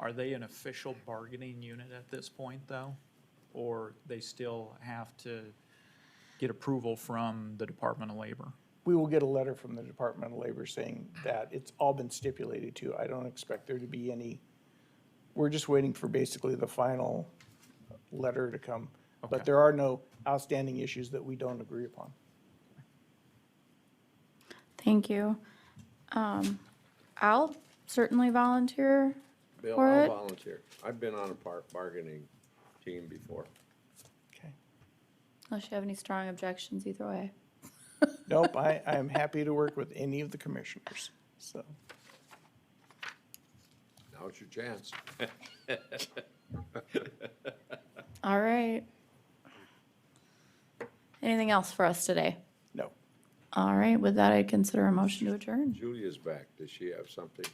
Are they an official bargaining unit at this point, though? Or they still have to get approval from the Department of Labor? We will get a letter from the Department of Labor saying that it's all been stipulated to. I don't expect there to be any, we're just waiting for basically the final letter to come. Okay. But there are no outstanding issues that we don't agree upon. Thank you. Um, I'll certainly volunteer Bill, for I'll it. volunteer. I've been on a par bargaining team before. Okay. Unless you have any strong objections either way. Nope, I, I am happy to work with any of the commissioners, so. Now's your chance. All right. Anything else for us today? No. All right, with that, I'd consider a motion to adjourn. Julia's back. Does she have something?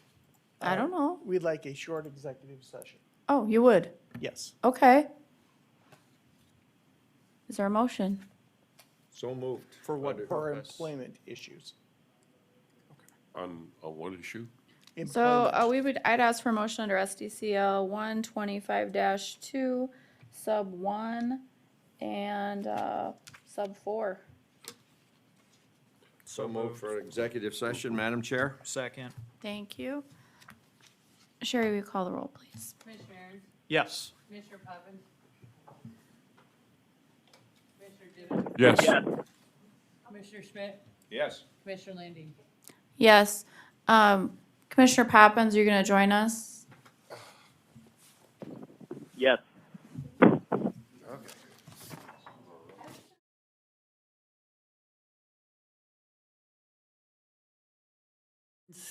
I don't know. We'd like a short executive session. Oh, you would? Yes. Okay. Is there a motion? So moved. For what Under- For Yes. employment issues. On a one issue? So uh, we would, I'd ask for a motion under SDCL one twenty-five two, sub one, and uh, sub four. So moved for an executive session, Madam Chair? Second. Thank you. Sherry, will you call the roll, please? Commissioner Aaron's, Yes. Commissioner Poppins. Commissioner Gibbon, Yes. Commissioner Schmidt, Yes. Commissioner Landine. Yes. Um, Commissioner Poppins, are you going to join us? Yes.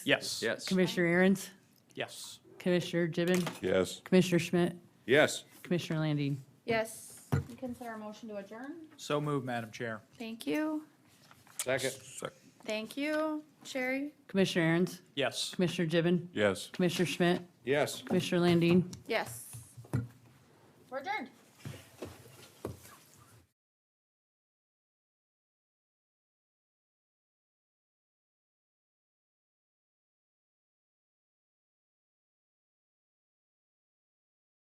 Yes. Yes. Commissioner Aaron's, Yes. Commissioner Gibbon, Yes. Commissioner Schmidt, Yes. Commissioner Landine. Yes. Consider a motion to adjourn. So moved, Madam Chair. Thank you. Second. Thank you. Sherry? Commissioner Aaron's, Yes. Commissioner Gibbon, Yes. Commissioner Schmidt, Yes. Commissioner Landine. Yes. We're adjourned.